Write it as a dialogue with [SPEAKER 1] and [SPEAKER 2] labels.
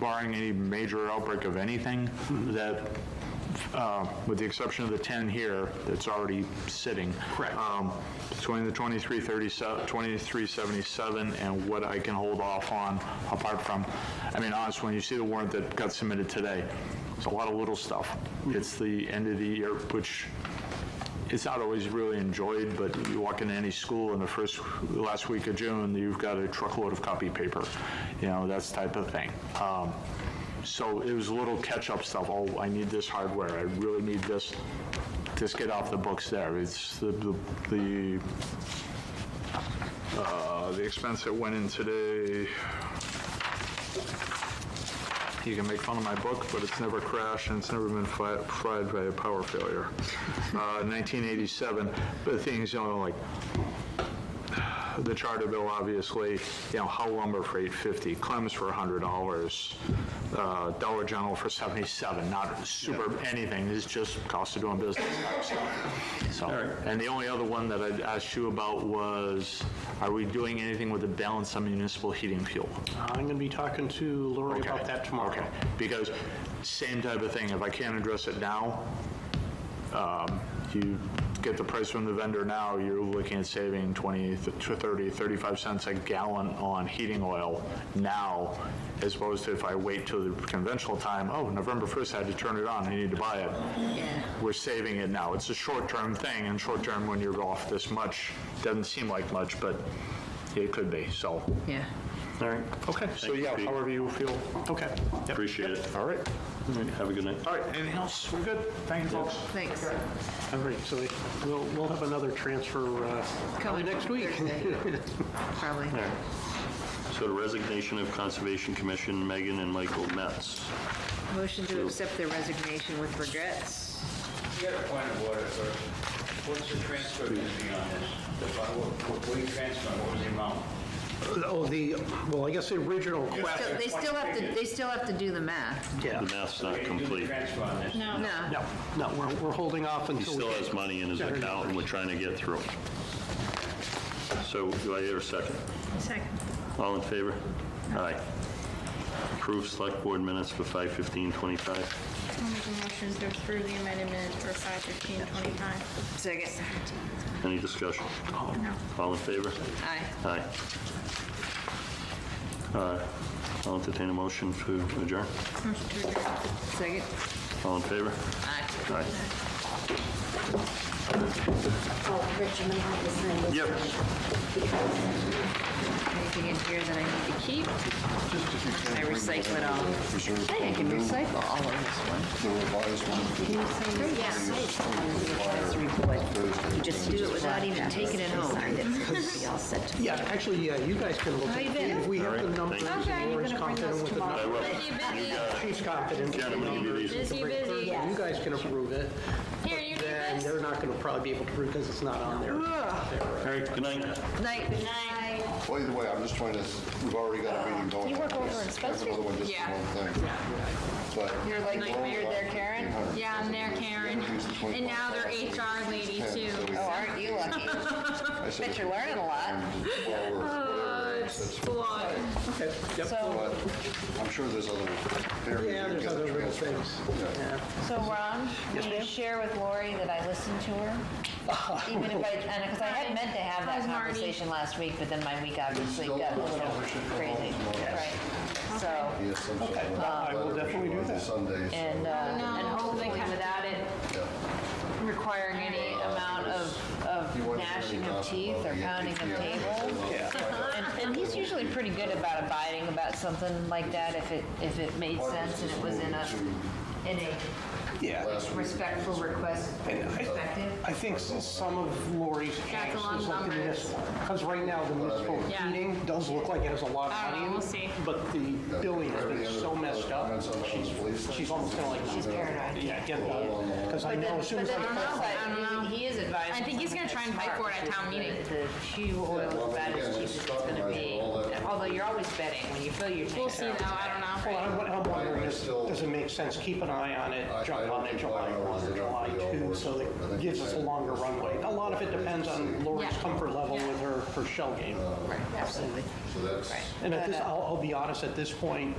[SPEAKER 1] barring any major outbreak of anything, that, uh, with the exception of the 10 here, that's already sitting.
[SPEAKER 2] Correct.
[SPEAKER 1] um, Between the 2337, 2377 and what I can hold off on, apart from, I mean, honestly, when you see the warrant that got submitted today, it's a lot of little stuff. It's the end of the year, which it's not always really enjoyed, but you walk into any school in the first, last week of June, you've got a truckload of copy paper, you know, that's type of thing. Um, So it was little catch-up stuff, oh, I need this hardware, I really need this, just get off the books there. It's the, the- the, uh, the expense that went in today, you can make fun of my book, but it's never crashed and it's never been fi- fried by a power failure. Uh, 1987, but the thing is, you know, like, the charter bill, obviously, you know, Hull lumber for 850, Clem's for $100, uh, Dollar General for 77, not super anything, it's just cost of doing business. type stuff. So, and the only other one that I'd asked you about was, are we doing anything with the balance on municipal heating fuel?
[SPEAKER 2] I'm going to be talking to Lori
[SPEAKER 1] Okay,
[SPEAKER 2] about that tomorrow.
[SPEAKER 1] Okay, because same type of thing, if I can't address it now, um, you get the price from the vendor now, you're looking at saving 20 to 30, 35 cents a gallon on heating oil now, as opposed to if I wait till the conventional time, oh, November 1st, I had to turn it on, I need to buy it. We're saving it now. It's a short-term thing, and short-term, when you're off this much, doesn't seem like much, but it could be, so.
[SPEAKER 3] Yeah,
[SPEAKER 2] All right, okay,
[SPEAKER 1] So, yeah, however you feel.
[SPEAKER 2] okay. Yep.
[SPEAKER 4] Appreciate it.
[SPEAKER 1] All right.
[SPEAKER 4] Have a good night.
[SPEAKER 1] All right, anything else? We're good. Thank you, folks.
[SPEAKER 3] thanks.
[SPEAKER 2] All right, so we- we'll, we'll have another transfer uh, probably
[SPEAKER 3] Coming
[SPEAKER 2] next week.
[SPEAKER 3] Thursday. Probably.
[SPEAKER 4] So the resignation of Conservation Commission, Megan and Michael Metz.
[SPEAKER 3] Motion to accept their resignation with regrets.
[SPEAKER 5] You got a point of order, sir. What's the transfer going to be on this? The, fi- what, what were you transferring, what was the amount?
[SPEAKER 2] Oh, the, well, I guess the original
[SPEAKER 3] So
[SPEAKER 2] question,
[SPEAKER 3] they still have to, they still have to do the math.
[SPEAKER 2] yeah.
[SPEAKER 4] The math's
[SPEAKER 5] Are
[SPEAKER 4] not
[SPEAKER 5] you gonna do the
[SPEAKER 4] complete.
[SPEAKER 5] transfer on this? No.
[SPEAKER 3] No,
[SPEAKER 2] No, no, we're, we're holding off
[SPEAKER 4] He
[SPEAKER 2] until. we
[SPEAKER 4] still
[SPEAKER 2] get-
[SPEAKER 4] has money in his
[SPEAKER 2] Yeah.
[SPEAKER 4] account, and we're trying to get through. So do I hear a second?
[SPEAKER 6] Second.
[SPEAKER 4] All in favor? Aye. Approve select board minutes for 5:15:25.
[SPEAKER 6] I'll make a motion to approve the amended minutes for 5:15:25.
[SPEAKER 3] second,
[SPEAKER 4] Any discussion?
[SPEAKER 6] No.
[SPEAKER 4] All in favor?
[SPEAKER 3] aye.
[SPEAKER 4] Aye. Uh, I'll entertain a motion to adjourn.
[SPEAKER 6] Motion to adjourn.
[SPEAKER 3] Second,
[SPEAKER 4] All in favor?
[SPEAKER 3] aye.
[SPEAKER 4] Aye.
[SPEAKER 7] Oh, Rich, I'm gonna have to sign this.
[SPEAKER 4] Yep.
[SPEAKER 3] Anything in here that I need to keep? I recycle it all. I think I can recycle all of this one.
[SPEAKER 7] Yes.
[SPEAKER 3] You just do it without even taking it home.
[SPEAKER 2] Yeah, actually, yeah, you guys can look.
[SPEAKER 6] How Oh, you
[SPEAKER 2] at
[SPEAKER 6] been?
[SPEAKER 2] If we have the numbers,
[SPEAKER 4] thank
[SPEAKER 6] Okay, you're
[SPEAKER 2] Lori's
[SPEAKER 6] gonna bring
[SPEAKER 2] confident
[SPEAKER 6] those
[SPEAKER 2] with the
[SPEAKER 6] tomorrow.
[SPEAKER 2] numbers.
[SPEAKER 6] Busy, busy,
[SPEAKER 2] She's confident. with the
[SPEAKER 4] Ken, I'm gonna give you
[SPEAKER 2] numbers.
[SPEAKER 4] these.
[SPEAKER 6] busy, busy.
[SPEAKER 2] You guys can approve it,
[SPEAKER 6] Here, you need
[SPEAKER 2] and
[SPEAKER 6] this.
[SPEAKER 2] they're not going to probably be able to approve because it's not on there.
[SPEAKER 4] All right, good night.
[SPEAKER 3] Night. Night.
[SPEAKER 8] Well, either way, I'm just trying to, we've already got a meeting going.
[SPEAKER 6] Uh, you work over in
[SPEAKER 8] Have another one just
[SPEAKER 6] Yeah.
[SPEAKER 8] for one thing. But-
[SPEAKER 6] You're like weird there, Karen. Yeah, I'm there, Karen. And now they're HR lady too.
[SPEAKER 8] Oh, aren't you lucky? Bet you're learning a lot.
[SPEAKER 6] Oh, Uh, It's a lot.
[SPEAKER 2] Okay, yep.
[SPEAKER 8] But I'm sure there's other areas.
[SPEAKER 2] Yeah,
[SPEAKER 8] you
[SPEAKER 2] there's
[SPEAKER 8] get
[SPEAKER 2] other little
[SPEAKER 8] transfer.
[SPEAKER 2] things.
[SPEAKER 9] So Ron, will you share with Lori that I listened to her? Even if I, and, because I had meant to have that
[SPEAKER 6] How's Marty?
[SPEAKER 9] conversation last week, but then my week obviously
[SPEAKER 8] Still
[SPEAKER 9] got a
[SPEAKER 8] don't
[SPEAKER 9] little
[SPEAKER 8] know if we should go
[SPEAKER 9] crazy.
[SPEAKER 8] home tomorrow.
[SPEAKER 9] Right. So,
[SPEAKER 8] Yes, some sort of
[SPEAKER 2] I will
[SPEAKER 8] letter
[SPEAKER 2] definitely do
[SPEAKER 8] on
[SPEAKER 2] that.
[SPEAKER 8] Sundays.
[SPEAKER 9] and, uh, and hopefully
[SPEAKER 6] without it.
[SPEAKER 9] requiring any amount of, of gnashing of teeth or pounding of tables. And, and he's usually pretty good about abiding about something like that if it, if it made sense and it was in a, in a
[SPEAKER 2] Yeah,
[SPEAKER 9] respectful request perspective.
[SPEAKER 2] I think s- some of Lori's
[SPEAKER 6] That's a
[SPEAKER 2] changes
[SPEAKER 6] lot of
[SPEAKER 2] is looking at
[SPEAKER 6] numbers.
[SPEAKER 2] this one. Because right now, the municipal
[SPEAKER 6] Yeah.
[SPEAKER 2] heating does look like it has a lot
[SPEAKER 6] I
[SPEAKER 2] of
[SPEAKER 6] don't
[SPEAKER 2] money.
[SPEAKER 6] know,
[SPEAKER 2] in
[SPEAKER 6] we'll
[SPEAKER 2] it,
[SPEAKER 6] see.
[SPEAKER 2] But the billing has been so messed up, she's, she's almost kind of like.
[SPEAKER 9] She's paranoid.
[SPEAKER 2] Yeah, get that. Because I
[SPEAKER 9] But
[SPEAKER 2] know
[SPEAKER 9] then,
[SPEAKER 2] as soon as
[SPEAKER 9] but
[SPEAKER 2] I.
[SPEAKER 9] then on
[SPEAKER 2] call-
[SPEAKER 9] the side,
[SPEAKER 6] I don't know.
[SPEAKER 9] he he is advising.
[SPEAKER 6] I think he's gonna try and fight for it at town meeting.
[SPEAKER 9] The shoe oil is bad as cheap as it's gonna be, although you're always betting when you fill your tank.
[SPEAKER 6] We'll see though, I don't
[SPEAKER 2] Well,
[SPEAKER 6] know.
[SPEAKER 2] I'm I'm wondering, is-
[SPEAKER 8] still-
[SPEAKER 2] does it make sense, keep an eye on it,
[SPEAKER 8] I-
[SPEAKER 2] jump
[SPEAKER 8] I
[SPEAKER 2] on it
[SPEAKER 8] don't
[SPEAKER 2] July
[SPEAKER 8] think I
[SPEAKER 2] 1 or
[SPEAKER 8] know
[SPEAKER 2] July
[SPEAKER 8] the
[SPEAKER 2] 2,
[SPEAKER 8] hours.
[SPEAKER 2] so
[SPEAKER 8] I
[SPEAKER 2] that
[SPEAKER 8] think
[SPEAKER 2] gives
[SPEAKER 8] you
[SPEAKER 2] us a
[SPEAKER 8] said-
[SPEAKER 2] longer runway. A lot of it depends on Lori's
[SPEAKER 6] Yeah.
[SPEAKER 2] comfort level
[SPEAKER 6] Yeah.
[SPEAKER 2] with her, her shell game.
[SPEAKER 3] Absolutely.
[SPEAKER 8] So that's.
[SPEAKER 2] And at this, I'll, I'll be honest, at this point,